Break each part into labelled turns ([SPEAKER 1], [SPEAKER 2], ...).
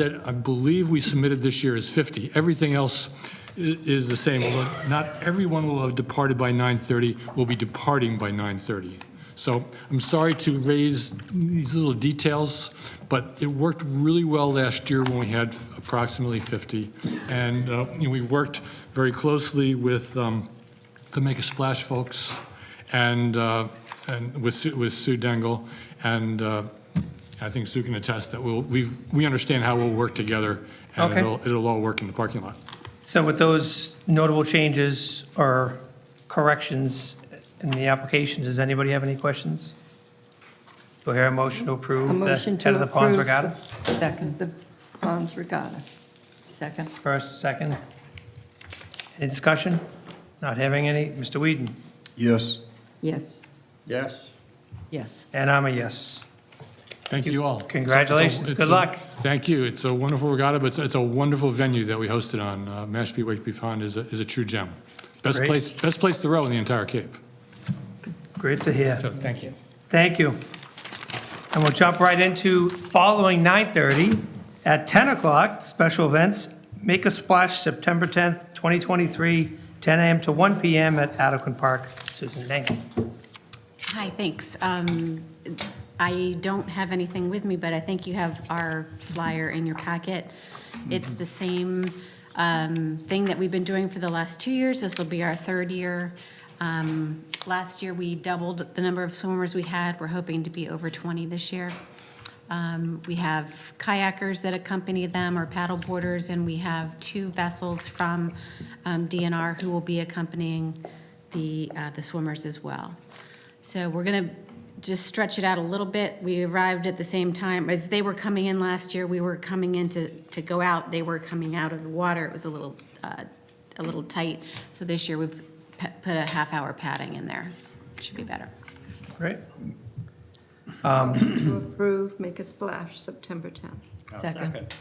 [SPEAKER 1] that I believe we submitted this year is 50. Everything else i- is the same, although not everyone will have departed by 9:30, will be departing by 9:30. So I'm sorry to raise these little details, but it worked really well last year when we had approximately 50. And uh, you know, we worked very closely with um, the Make a Splash folks and, uh, and with Sue- with Sue Dengel, and uh, I think Sue can attest that we'll, we've, we understand how we'll work together, and
[SPEAKER 2] Okay.
[SPEAKER 1] it'll, it'll all work in the parking lot.
[SPEAKER 2] So with those notable changes or corrections in the application, does anybody have any questions? Do I hear a motion to
[SPEAKER 3] A
[SPEAKER 2] approve the
[SPEAKER 3] motion to
[SPEAKER 2] head of the ponds
[SPEAKER 3] approve
[SPEAKER 2] regatta?
[SPEAKER 3] the- Second, the Ponds Regatta. Second.
[SPEAKER 2] First, second. Any discussion? Not having any? Mr. Whedon?
[SPEAKER 4] Yes.
[SPEAKER 3] Yes.
[SPEAKER 4] Yes.
[SPEAKER 3] Yes.
[SPEAKER 2] And I'm a yes.
[SPEAKER 1] Thank you all.
[SPEAKER 2] Congratulations.
[SPEAKER 1] It's a-
[SPEAKER 2] Good
[SPEAKER 1] it's a-
[SPEAKER 2] luck.
[SPEAKER 1] Thank you. It's a wonderful regatta, but it's, it's a wonderful venue that we hosted on. Uh, Mashpee Wakeby Pond is a, is a true gem. Best
[SPEAKER 2] Great.
[SPEAKER 1] place, best place to row in the entire Cape.
[SPEAKER 2] Great to hear.
[SPEAKER 1] So thank you.
[SPEAKER 2] Thank you. And we'll jump right into following 9:30. At 10 o'clock, special events, Make a Splash, September 10th, 2023, 10 a.m. to 1 p.m. at Adequan Park. Susan, thank you.
[SPEAKER 5] Hi, thanks. Um, I don't have anything with me, but I think you have our flyer in your packet. It's the same um, thing that we've been doing for the last two years. This will be our third year. Um, Last year, we doubled the number of swimmers we had. We're hoping to be over 20 this year. Um, We have kayakers that accompany them or paddle boarders, and we have two vessels from um, DNR who will be accompanying the, uh, the swimmers as well. So we're going to just stretch it out a little bit. We arrived at the same time, as they were coming in last year, we were coming in to, to go out, they were coming out of the water, it was a little, uh, a little tight. So this year, we've pe- put a half-hour padding in there, should be better.
[SPEAKER 2] Great.
[SPEAKER 6] To approve, make a splash, September 10th.
[SPEAKER 3] Second.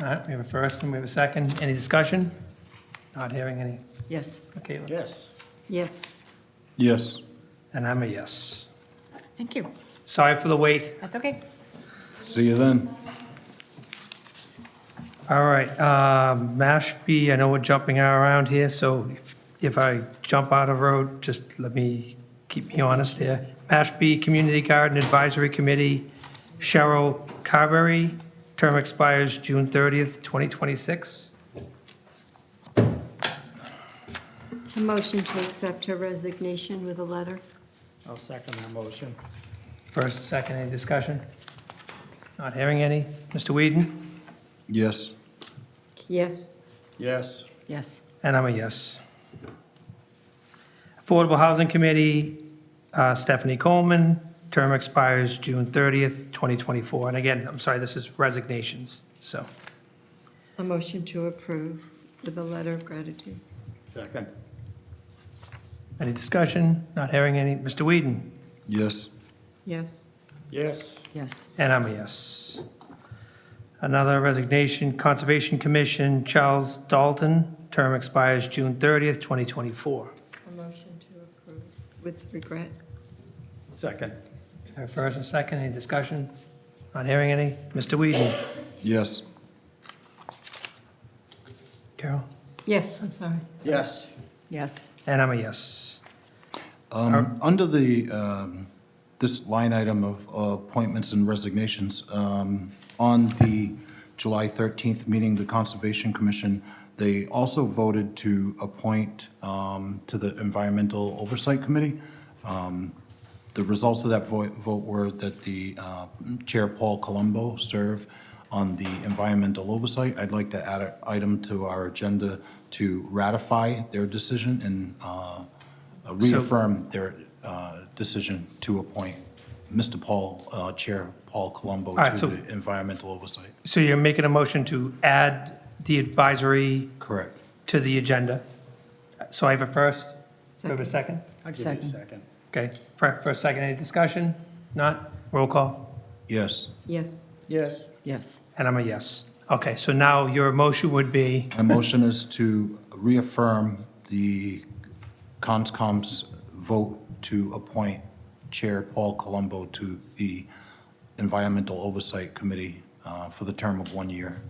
[SPEAKER 2] All right, we have a first and we have a second. Any discussion? Not hearing any.
[SPEAKER 3] Yes.
[SPEAKER 2] Okay,
[SPEAKER 4] Yes.
[SPEAKER 6] Yes.
[SPEAKER 4] Yes.
[SPEAKER 2] and I'm a yes.
[SPEAKER 5] Thank you.
[SPEAKER 2] Sorry for the wait.
[SPEAKER 5] That's okay.
[SPEAKER 4] See you then.
[SPEAKER 2] All right, um, Mashpee, I know we're jumping around here, so if- if I jump out of road, just let me, keep me honest here. Mashpee Community Garden Advisory Committee, Cheryl Carberry, term expires June 30th, 2026.
[SPEAKER 6] A motion to accept her resignation with a letter.
[SPEAKER 7] I'll second that motion.
[SPEAKER 2] First, second, any discussion? Not hearing any. Mr. Whedon?
[SPEAKER 4] Yes.
[SPEAKER 6] Yes.
[SPEAKER 4] Yes.
[SPEAKER 3] Yes.
[SPEAKER 2] And I'm a yes. Affordable Housing Committee, uh, Stephanie Coleman, term expires June 30th, 2024. And again, I'm sorry, this is resignations, so.
[SPEAKER 6] A motion to approve with a letter of gratitude.
[SPEAKER 7] Second.
[SPEAKER 2] Any discussion? Not hearing any. Mr. Whedon?
[SPEAKER 4] Yes.
[SPEAKER 6] Yes.
[SPEAKER 7] Yes.
[SPEAKER 3] Yes.
[SPEAKER 2] And I'm a yes. Another resignation, Conservation Commission, Charles Dalton, term expires June 30th, 2024.
[SPEAKER 6] A motion to approve with regret.
[SPEAKER 7] Second.
[SPEAKER 2] Our First and second, any discussion? Not hearing any. Mr. Whedon?
[SPEAKER 4] Yes.
[SPEAKER 2] Carol?
[SPEAKER 6] Yes, I'm sorry.
[SPEAKER 7] Yes.
[SPEAKER 3] Yes.
[SPEAKER 2] And I'm a yes.
[SPEAKER 4] Um, Under the, um, this line item of uh, appointments and resignations, um, on the July 13th meeting, the Conservation Commission, they also voted to appoint um, to the Environmental Oversight Committee. Um, The results of that vo- vote were that the uh, Chair Paul Colombo serve on the Environmental Oversight. I'd like to add an item to our agenda to ratify their decision and uh, reaffirm their uh, decision to appoint Mr. Paul, uh, Chair Paul Colombo
[SPEAKER 2] right,
[SPEAKER 4] to
[SPEAKER 2] so-
[SPEAKER 4] the Environmental Oversight.
[SPEAKER 2] So you're making a motion to add the advisory
[SPEAKER 4] Correct.
[SPEAKER 2] to the agenda. So I have a first, we have a second?
[SPEAKER 7] I'll give you a second.
[SPEAKER 2] Okay, for, for a second, any discussion? Not? Roll call?
[SPEAKER 4] Yes.
[SPEAKER 6] Yes.
[SPEAKER 7] Yes.
[SPEAKER 3] Yes.
[SPEAKER 2] And I'm a yes. Okay, so now your motion would be,
[SPEAKER 4] My motion is to reaffirm the CONSCOM's vote to appoint Chair Paul Colombo to the Environmental Oversight Committee uh, for the term of one year.